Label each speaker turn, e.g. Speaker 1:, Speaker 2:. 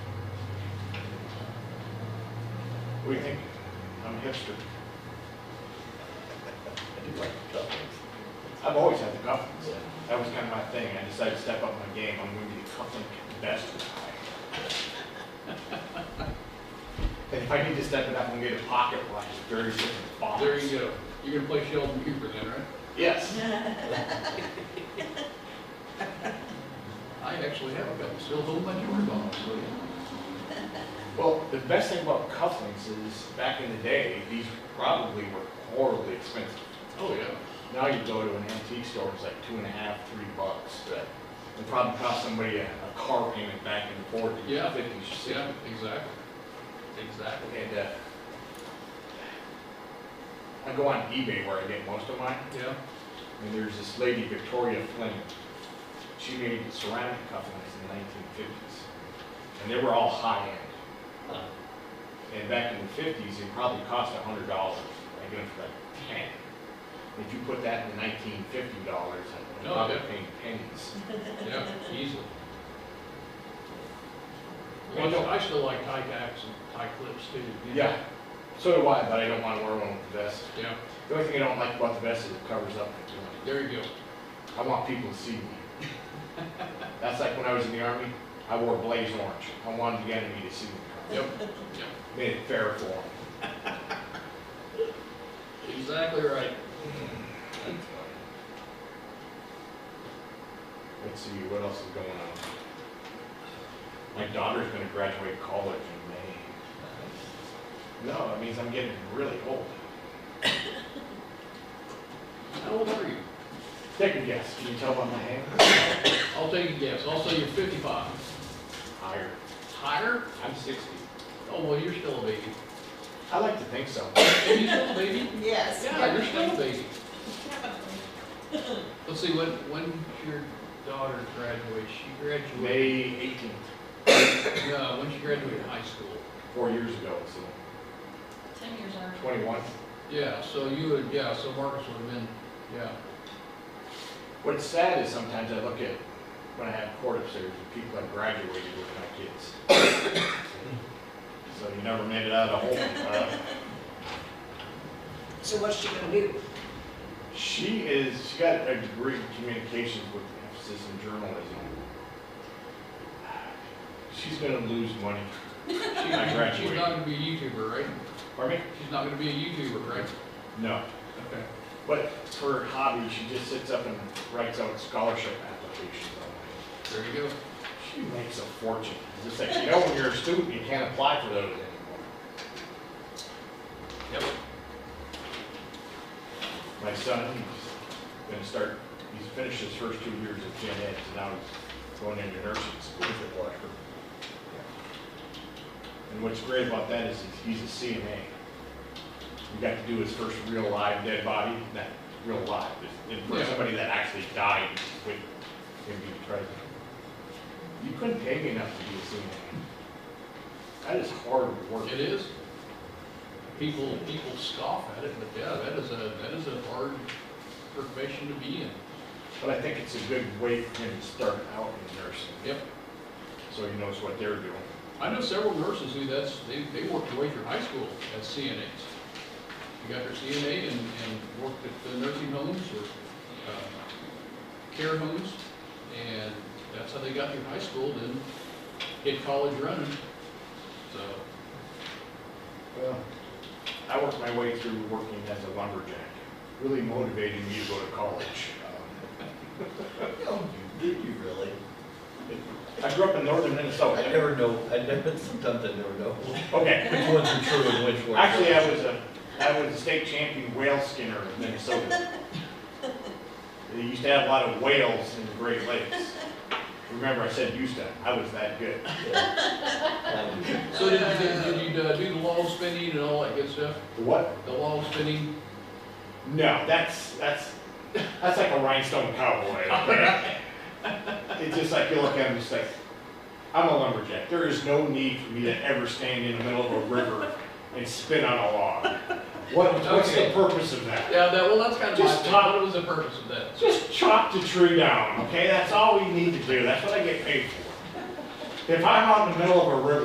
Speaker 1: What do you think? I'm a hipster.
Speaker 2: I do like the cufflinks.
Speaker 1: I've always had the cufflinks. That was kind of my thing. I decided to step up my game. I'm going to be the cufflink best guy. And if I need to step it up, I'm going to get a pocket watch, thirty six bombs.
Speaker 3: There you go. You're gonna play Sheldon Cooper then, right?
Speaker 1: Yes.
Speaker 3: I actually have a couple, still hold my jewelry box, so yeah.
Speaker 1: Well, the best thing about cufflinks is, back in the day, these probably were horribly expensive.
Speaker 3: Oh, yeah.
Speaker 1: Now you go to an antique store, it's like two and a half, three bucks.
Speaker 3: Right.
Speaker 1: It probably cost somebody a, a car payment back in the forties,
Speaker 3: Yeah.
Speaker 1: fifties, sixties.
Speaker 3: Yeah, exactly. Exactly.
Speaker 1: And, uh, I go on eBay where I get most of mine,
Speaker 3: Yeah.
Speaker 1: and there's this lady, Victoria Flynn. She made ceramic cufflinks in the nineteen fifties, and they were all high-end.
Speaker 2: Huh.
Speaker 1: And back in the fifties, it probably cost a hundred dollars, I get them for like ten. If you put that in nineteen fifty dollars, I'm
Speaker 3: Oh,
Speaker 1: probably
Speaker 3: yeah. Mm-hmm.
Speaker 1: paying pennies.
Speaker 3: Yeah, easily.
Speaker 1: Well, no.
Speaker 3: I still like tie backs and tie clips too. you know?
Speaker 1: Yeah, so do I, but I don't wanna wear one with the vest.
Speaker 3: Yeah,
Speaker 1: The only thing I don't like about the vest is it covers up.
Speaker 3: there you go.
Speaker 1: I want people to see me. That's like when I was in the army, I wore blaze orange. I wanted the enemy to see me.
Speaker 3: Yep, yep,
Speaker 1: Made it fair for them.
Speaker 3: exactly right.
Speaker 1: Let's see, what else is going on? My daughter's gonna graduate college in May. No, that means I'm getting really old.
Speaker 3: How old are you?
Speaker 1: Take a guess, can you tell by my hand?
Speaker 3: I'll take a guess. I'll say you're fifty-five.
Speaker 1: Higher.
Speaker 3: Higher?
Speaker 1: I'm sixty.
Speaker 3: Oh, well, you're still a baby.
Speaker 1: I like to think so.
Speaker 3: Are you still a baby?
Speaker 4: Yes.
Speaker 3: Yeah, you're still a baby. Let's see, when, when your daughter graduates, she graduated,
Speaker 1: May eighteenth,
Speaker 3: no, when she graduated high school.
Speaker 1: four years ago, so
Speaker 4: Ten years already.
Speaker 1: twenty-one.
Speaker 3: Yeah, so you would, yeah, so Marcus would have been, yeah.
Speaker 1: What's sad is sometimes I look at, when I have court upstairs, the people I graduated with my kids. So you never made it out of the hole. uh,
Speaker 4: So what's she gonna do?
Speaker 1: She is, she got a degree in communications with emphasis in journalism. She's gonna lose money.
Speaker 3: She- She's
Speaker 1: graduated.
Speaker 3: not gonna be a YouTuber, right?
Speaker 1: Pardon me?
Speaker 3: She's not gonna be a YouTuber, right?
Speaker 1: No.
Speaker 3: Okay.
Speaker 1: But for her hobby, she just sits up and writes out scholarship applications online.
Speaker 3: There you go.
Speaker 1: She makes a fortune. It's just like, you know, when you're a student, you can't apply for those anymore.
Speaker 3: Yep.
Speaker 1: My son, he's gonna start, he's finished his first two years of gen ed, and now he's going into nursing school for Washburn. And what's great about that is he's he's a CNA. We got to do his first real live dead body, not real live, but it- for
Speaker 3: Yeah.
Speaker 1: somebody that actually died with him being present. You couldn't pay me enough to be a CNA. That is hard work.
Speaker 3: It is. People, people scoff at it, but yeah, that is a, that is a hard profession to be in.
Speaker 1: But I think it's a good way for him to start out in nursing.
Speaker 3: Yep.
Speaker 1: So he knows what they're doing.
Speaker 3: I know several nurses who that's, they, they worked their way through high school as CNAs. They got their CNA and, and worked at the nursing homes or, uh, care homes. And that's how they got through high school, then hit college running. So,
Speaker 1: Well, I worked my way through working as a lumberjack. Really motivated me to go to college. Um,
Speaker 2: No, you, did you really?
Speaker 1: I grew up in northern
Speaker 2: I
Speaker 1: Minnesota.
Speaker 2: never know, I never, sometimes I never know which
Speaker 1: Okay,
Speaker 2: ones are true and which ones.
Speaker 1: actually, I was a, I was a state champion whale skinner in Minnesota. They used to have a lot of whales in the Great Lakes. Remember, I said used to, I was that good.
Speaker 2: Yeah.
Speaker 3: so did, did did you uh, do the log spinning and all that good stuff?
Speaker 1: What?
Speaker 3: The log spinning?
Speaker 1: No, that's, that's, that's like a rhinestone cowboy. okay? It's just like, you look at him, just like, I'm a lumberjack. There is no need for me to ever stand in the middle of a river and spin on a log. What, what's the
Speaker 3: Okay.
Speaker 1: purpose of that?
Speaker 3: Yeah, that, well, that's kind of my
Speaker 1: Just
Speaker 3: thing.
Speaker 1: talk-
Speaker 3: What was the purpose of that?
Speaker 1: Just chop the tree down, okay? That's all we need to do. That's what I get paid for. If I'm out in the middle of a river